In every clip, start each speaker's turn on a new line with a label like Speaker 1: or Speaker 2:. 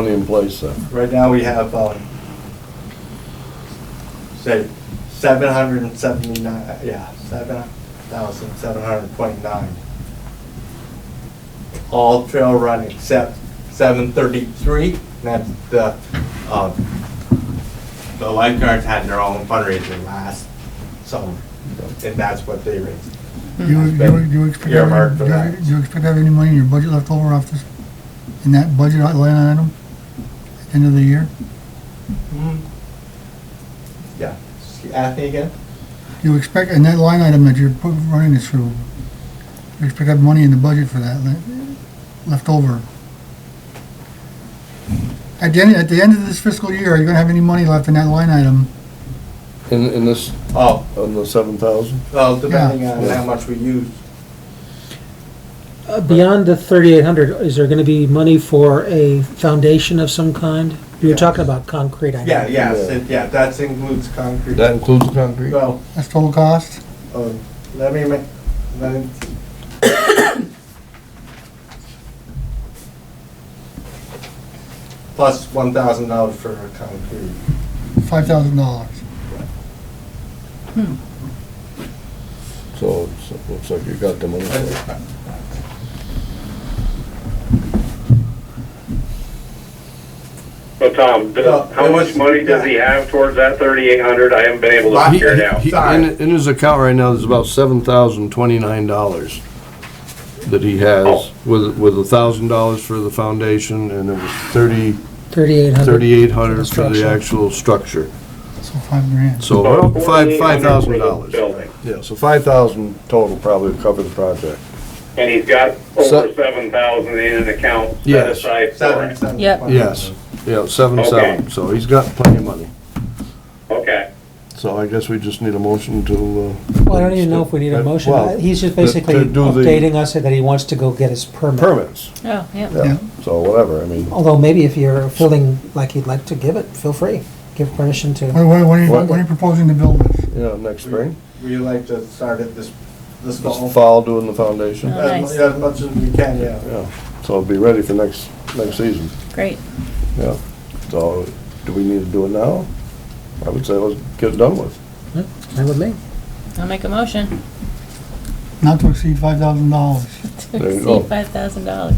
Speaker 1: money in place uh, then?
Speaker 2: Right now, we have, um, say, seven hundred and seventy-nine, yeah, seven thousand, seven hundred and twenty-nine. All trail run except seven thirty-three, and that's the, um, the lifeguards had their own fundraiser last summer, and that's what they raised.
Speaker 3: You, you, you expect, to
Speaker 2: Earmarked
Speaker 3: have-
Speaker 2: for
Speaker 3: do you
Speaker 2: that.
Speaker 3: do you expect to have any money in your budget left over off this, in that budget line item at the end of the year?
Speaker 2: Yeah, ask me again?
Speaker 3: Do you expect, in that line item that you're put- running this through, you expect to have money in the budget for that, le- left over? At the end, at the end of this fiscal year, are you gonna have any money left in that line item?
Speaker 1: In, in this,
Speaker 2: Oh,
Speaker 1: on the seven thousand?
Speaker 2: well, depending on
Speaker 1: Yeah.
Speaker 2: how much we use,
Speaker 4: Uh, Beyond the 3,800, is there going to be money for a foundation of some kind? You were talking about concrete, I know.
Speaker 2: Yeah, yes, it- yeah, that includes concrete.
Speaker 1: That includes the concrete?
Speaker 2: Well,
Speaker 3: That's total cost?
Speaker 2: um, let me make, let me. Plus one thousand dollars for concrete.
Speaker 3: Five thousand dollars.
Speaker 1: So it's- it looks like you got the money. for it.
Speaker 5: So Tom, does-
Speaker 2: No,
Speaker 5: how
Speaker 2: it
Speaker 5: much
Speaker 2: was-
Speaker 5: money does he have towards that thirty-eight hundred? I haven't been able to
Speaker 2: He-
Speaker 5: figure it out.
Speaker 1: He- In, in his account right now, there's about seven thousand twenty-nine dollars that he
Speaker 5: Oh.
Speaker 1: has, with, with a thousand dollars for the foundation, and it was thirty,
Speaker 4: 3,800.
Speaker 1: thirty-eight hundred for the
Speaker 4: Structure.
Speaker 1: actual structure.
Speaker 3: So five grand.
Speaker 1: So,
Speaker 5: About
Speaker 1: well, five, five
Speaker 5: $4,800 for
Speaker 1: thousand
Speaker 5: the
Speaker 1: dollars.
Speaker 5: Building,
Speaker 1: Yeah, so five thousand total probably would cover the project.
Speaker 5: and he's got
Speaker 1: So-
Speaker 5: over seven thousand in an account set
Speaker 1: Yes.
Speaker 5: aside for
Speaker 2: Seven,
Speaker 5: it.
Speaker 2: seven.
Speaker 6: Yep.
Speaker 2: five.
Speaker 1: Yes, yeah, seven,
Speaker 5: Okay.
Speaker 1: seven, so he's got plenty of money.
Speaker 5: Okay,
Speaker 1: So I guess we just need a motion to, uh.
Speaker 4: Well, I don't even know if we need a motion.
Speaker 1: Well,
Speaker 4: Uh, He's just
Speaker 1: to- to
Speaker 4: basically
Speaker 1: do the
Speaker 4: updating us that he wants to go get his permit.
Speaker 1: Permits,
Speaker 6: Oh, yeah.
Speaker 1: yeah, so whatever, I mean,
Speaker 4: Although maybe if you're feeling like you'd like to give it, feel free. Give permission
Speaker 3: What,
Speaker 4: to,
Speaker 3: what, what are you,
Speaker 1: What?
Speaker 3: what are you proposing to build with?
Speaker 1: you know, next spring,
Speaker 2: We like to start it this, this fall.
Speaker 1: just fall doing the foundation.
Speaker 6: Yeah.
Speaker 2: As, mu- as much as we can, yeah.
Speaker 1: Yeah, so be ready for next, next season,
Speaker 6: Great.
Speaker 1: yeah. So, do we need to do it now? I would say let's get it done with.
Speaker 4: that would me.
Speaker 6: I'll make a motion
Speaker 3: Not to exceed five thousand dollars.
Speaker 6: to
Speaker 1: There you go.
Speaker 6: exceed five thousand dollars.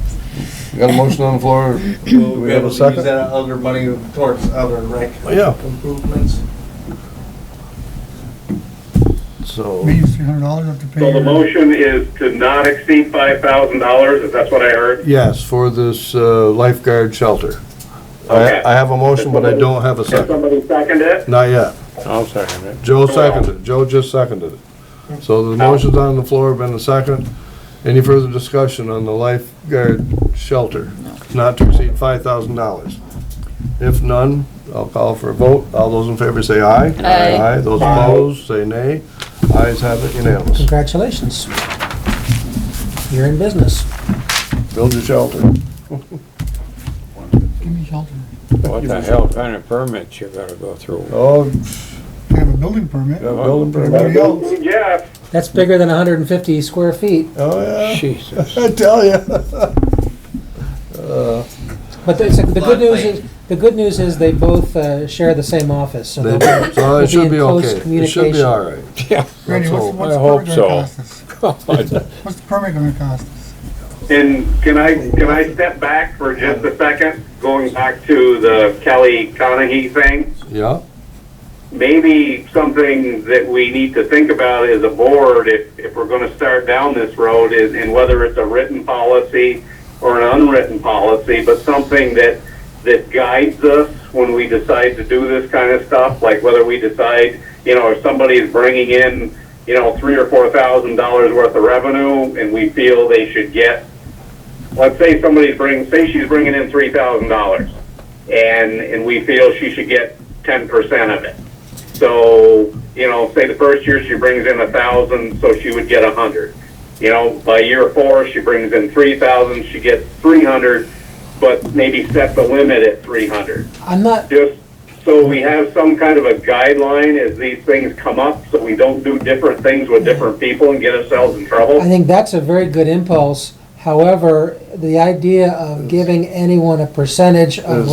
Speaker 1: You got a motion on the floor?
Speaker 2: We'll
Speaker 1: Do
Speaker 2: be
Speaker 1: we have
Speaker 2: able
Speaker 1: a
Speaker 2: to use
Speaker 1: second?
Speaker 2: that other money towards other rec
Speaker 1: Oh, yeah.
Speaker 2: improvements.
Speaker 1: So,
Speaker 3: We use three hundred dollars up to pay.
Speaker 5: so the
Speaker 3: your-
Speaker 5: motion is to not exceed five thousand dollars, if that's what I heard?
Speaker 1: yes, for this uh, lifeguard shelter. I,
Speaker 5: Okay.
Speaker 1: I have a motion, but I don't have a
Speaker 5: Can
Speaker 1: second,
Speaker 5: somebody second it?
Speaker 1: not yet.
Speaker 7: I'll second it.
Speaker 1: Joe seconded, it. Joe just seconded it. So the motion's on the floor, been a second. Any further discussion on the lifeguard shelter? Not to exceed five thousand dollars. If none, I'll call for a vote. All those in favor say aye.
Speaker 6: Aye.
Speaker 1: Those opposed, say nay. Ayes have it unanimous.
Speaker 4: Congratulations. You're in business.
Speaker 1: Build your shelter.
Speaker 3: Give me shelter.
Speaker 7: What the hell kind of permits you gotta go through?
Speaker 1: Oh,
Speaker 3: I have a building permit.
Speaker 1: got a building
Speaker 3: Everybody
Speaker 1: permit.
Speaker 3: else,
Speaker 5: Jeff,
Speaker 4: That's bigger than 150 square feet.
Speaker 1: Oh, yeah.
Speaker 7: Jesus.
Speaker 1: I tell ya.
Speaker 4: But the, so the
Speaker 2: Lot of
Speaker 4: good news
Speaker 2: land.
Speaker 4: is, the good news is they both uh, share the same office, so
Speaker 1: They
Speaker 4: they'll
Speaker 1: do.
Speaker 4: be-
Speaker 1: So
Speaker 4: we'll
Speaker 1: it should
Speaker 4: in
Speaker 1: be
Speaker 4: close
Speaker 1: okay. It should be
Speaker 4: communication.
Speaker 1: all right.
Speaker 7: Yeah,
Speaker 3: Randy, what's,
Speaker 1: all.
Speaker 3: what's
Speaker 7: I
Speaker 3: the
Speaker 7: hope
Speaker 3: permit
Speaker 7: so.
Speaker 3: gonna cost us? What's the permit gonna cost us?
Speaker 5: and can I, can I step back for just a second, going back to the Kelly Conahy thing?
Speaker 1: Yeah,
Speaker 5: maybe something that we need to think about as a board, if, if we're gonna start down this road, is, and whether it's a written policy or an unwritten policy, but something that, that guides us when we decide to do this kind of stuff, like whether we decide, you know, if somebody's bringing in, you know, three or four thousand dollars worth of revenue, and we feel they should get let's say somebody's bringing, say she's bringing in three thousand dollars, and, and we feel she should get ten percent of it. So, you know, say the first year she brings in a thousand, so she would get a hundred. You know, by year four, she brings in three thousand, she gets three hundred, but maybe set the limit at three hundred
Speaker 4: I'm not,
Speaker 5: just so we have some kind of a guideline as these things come up, so we don't do different things with different people and get ourselves in trouble.
Speaker 4: I think that's a very good impulse. However, the idea of giving anyone a percentage of
Speaker 1: Is-